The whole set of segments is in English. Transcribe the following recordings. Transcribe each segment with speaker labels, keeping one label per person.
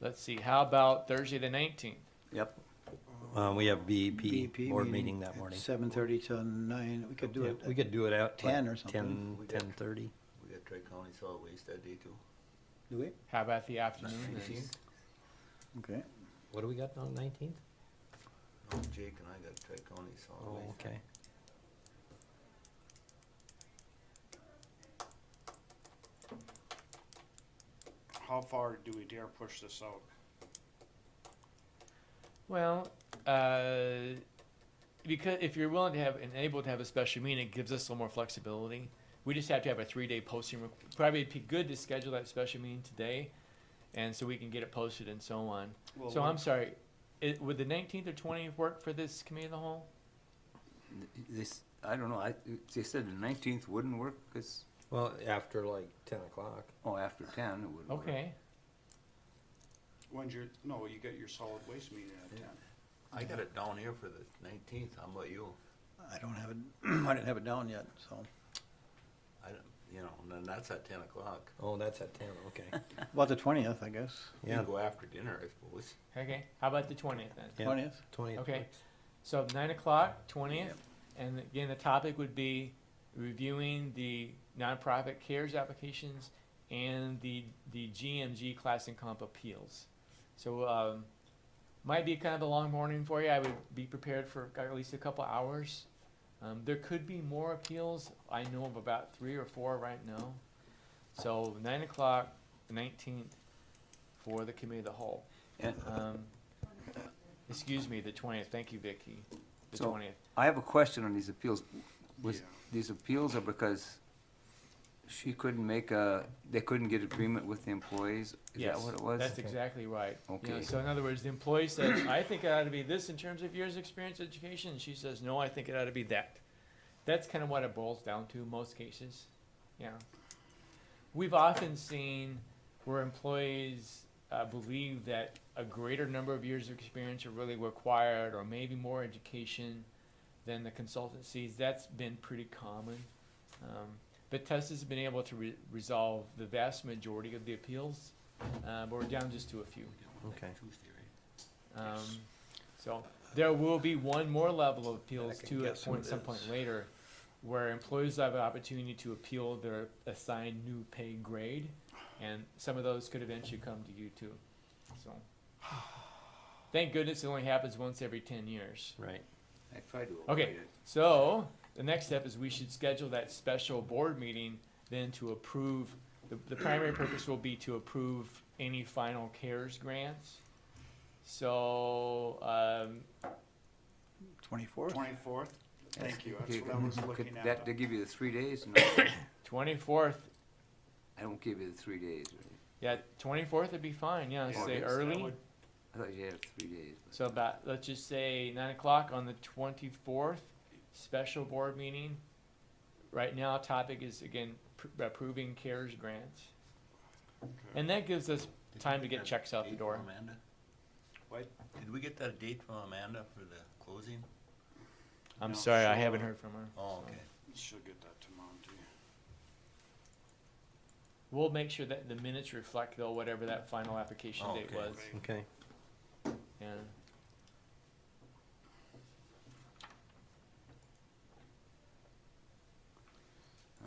Speaker 1: Let's see, how about Thursday the nineteenth?
Speaker 2: Yep. Uh, we have BEP
Speaker 3: BEP
Speaker 2: board meeting that morning.
Speaker 3: Seven thirty to nine, we could do
Speaker 2: Yeah,
Speaker 3: it.
Speaker 2: We could do it out.
Speaker 3: 10 or something.
Speaker 2: Ten, ten thirty.
Speaker 4: We got Tri-County Solid Waste that day too.
Speaker 3: Do it?
Speaker 1: How about the afternoon?
Speaker 3: Okay.
Speaker 5: What do we got on nineteenth?
Speaker 4: No, Oh, Jake and I got Tri-County Solid
Speaker 2: Oh,
Speaker 4: Waste.
Speaker 2: okay.
Speaker 6: How far do we dare push this out?
Speaker 1: Well, uh, because if you're willing to have and able to have a special meeting, it gives us a little more flexibility. We just have to have a three-day posting. re- Probably it'd be good to schedule that special meeting today, and so we can get it posted and so on.
Speaker 6: Well,
Speaker 1: So I'm sorry, it, would the nineteenth or twentieth work for this committee of the whole?
Speaker 4: This, I don't know, I, they said the nineteenth wouldn't work, cause,
Speaker 5: Well, after like ten o'clock.
Speaker 4: oh, after ten it wouldn't work.
Speaker 1: Okay,
Speaker 6: When's your, no, you got your solid waste meeting at ten.
Speaker 4: I got it down here for the nineteenth, how about you?
Speaker 3: I don't have it, I didn't have it down yet, so.
Speaker 4: I, don't- you know, and then that's at ten o'clock.
Speaker 5: Oh, that's at ten, okay.
Speaker 3: About the twentieth, I guess.
Speaker 4: You can
Speaker 5: Yeah,
Speaker 4: go after dinner, I suppose.
Speaker 1: okay. How about the twentieth then?
Speaker 5: Yeah.
Speaker 3: Twentieth?
Speaker 5: twentieth.
Speaker 1: Okay, so nine o'clock, twentieth,
Speaker 3: Yep.
Speaker 1: and again, the topic would be reviewing the nonprofit cares applications and the, the GMG class and comp appeals. So, um, might be kind of a long morning for you, I would be prepared for at least a couple hours. Um, there could be more appeals, I know of about three or four right now. So nine o'clock, nineteenth, for the committee of the whole.
Speaker 4: And
Speaker 1: Um, excuse me, the twentieth, thank you, Vicky, the
Speaker 4: So-
Speaker 1: twentieth.
Speaker 4: I have a question on these appeals. Was,
Speaker 6: Yeah.
Speaker 4: these appeals are because she couldn't make a, they couldn't get agreement with the employees? Is that
Speaker 1: Yes,
Speaker 4: what it was?
Speaker 1: That's exactly right. You know,
Speaker 4: Okay.
Speaker 1: So in other words, the employee says, I think it ought to be this in terms of years' experience, education, and she says, no, I think it ought to be that. That's kind of what it boils down to in most cases, yeah. We've often seen where employees, uh, believe that a greater number of years of experience are really required, or maybe more education than the consultancies, that's been pretty common. Um, but Tessa's been able to re- resolve the vast majority of the appeals, uh, but we're down just to a few.
Speaker 5: Okay.
Speaker 1: Um, so there will be one more level of appeals
Speaker 5: can
Speaker 1: too at
Speaker 5: guess who
Speaker 1: point,
Speaker 5: it
Speaker 1: some point later, where employees have an opportunity to appeal their assigned new pay grade, and some of those could eventually come to you too, so. Thank goodness it only happens once every ten years.
Speaker 5: Right.
Speaker 4: I tried to avoid
Speaker 1: Okay.
Speaker 4: it.
Speaker 1: So, the next step is we should schedule that special board meeting then to approve, the, the primary purpose will be to approve any final CARES grants. So, um,
Speaker 3: Twenty-fourth?
Speaker 6: Twenty-fourth?
Speaker 4: That's-
Speaker 6: Thank you, that's
Speaker 4: okay,
Speaker 6: what I was
Speaker 4: could
Speaker 6: looking at.
Speaker 4: That, they give you the three days? No,
Speaker 1: twenty-fourth,
Speaker 4: I don't give you the three days, right?
Speaker 1: yeah, twenty-fourth would be fine, yeah,
Speaker 6: Yeah,
Speaker 1: say
Speaker 4: August,
Speaker 6: that
Speaker 1: early.
Speaker 6: would-
Speaker 4: I thought you had three days. but-
Speaker 1: So about, let's just say nine o'clock on the twenty-fourth, special board meeting. Right now, topic is again, pr- approving CARES grants.
Speaker 6: okay.
Speaker 1: And that gives us
Speaker 7: Did
Speaker 1: time
Speaker 7: we
Speaker 1: to
Speaker 7: get
Speaker 1: get
Speaker 7: that
Speaker 1: checks out the
Speaker 7: date
Speaker 1: door.
Speaker 7: from Amanda?
Speaker 6: What?
Speaker 7: Did we get that date from Amanda for the closing?
Speaker 1: I'm
Speaker 6: No,
Speaker 1: sorry, I
Speaker 6: so-
Speaker 1: haven't heard from her.
Speaker 7: Oh,
Speaker 1: so.
Speaker 7: okay.
Speaker 6: She'll get that tomorrow too.
Speaker 1: We'll make sure that the minutes reflect though whatever that final application
Speaker 7: Oh,
Speaker 1: date
Speaker 7: okay.
Speaker 1: was.
Speaker 6: Okay.
Speaker 5: Okay.
Speaker 1: Yeah.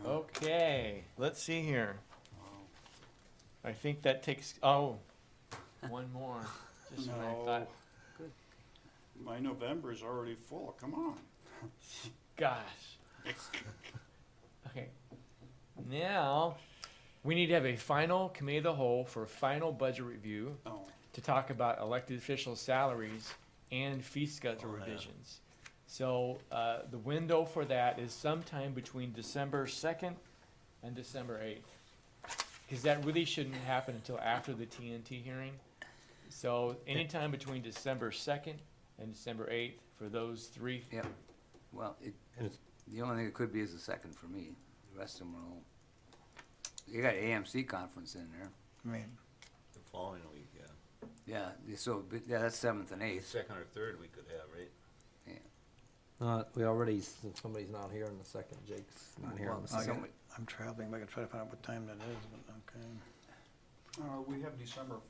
Speaker 1: Okay, let's see here.
Speaker 6: Oh,
Speaker 1: I think that takes, oh, one more. Just when I
Speaker 6: No.
Speaker 1: thought,
Speaker 6: My November is already full, come on.
Speaker 1: gosh. Okay. Now, we need to have a final committee of the whole for final budget review.
Speaker 6: Oh,
Speaker 1: to talk about elected official salaries and fee schedule
Speaker 7: Oh, yeah.
Speaker 1: revisions. So, uh, the window for that is sometime between December second and December eighth. Cause that really shouldn't happen until after the TNT hearing. So anytime between December second and December eighth for those three,
Speaker 4: Well, it,
Speaker 5: And it's-
Speaker 4: the only thing it could be is the second for me. The rest of them are all, you got AMC conference in there.
Speaker 3: I mean,
Speaker 7: The following week, yeah.
Speaker 4: Yeah, they- so, but, yeah, that's seventh and
Speaker 7: The
Speaker 4: eighth.
Speaker 7: second or third we could have, right?
Speaker 5: Uh, we already, since somebody's not here on the second, Jake's not here on the
Speaker 4: Well,
Speaker 5: second.
Speaker 4: somebody-
Speaker 3: I'm traveling, but I can try to find out what time that is, but okay.
Speaker 6: uh, we have December